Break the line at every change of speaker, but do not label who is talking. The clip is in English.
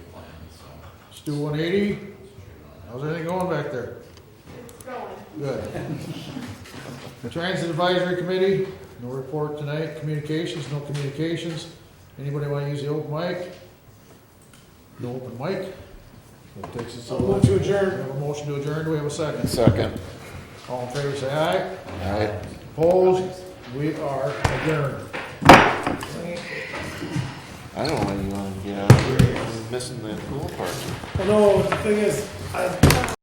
Let's do one eighty. How's everything going back there?
It's going.
Good. Transit Advisory Committee, no report tonight. Communications, no communications. Anybody want to use the open mic? No open mic? That takes us
I'll
all.
move to
We
adjourn.
have a motion to adjourn. Do we have a second?
Second.
All in favor, say aye.
Aye.
Opposed? We are adjourned.
I don't want you to get out of here. I'm missing the pool party.
Well, no, the thing is, I,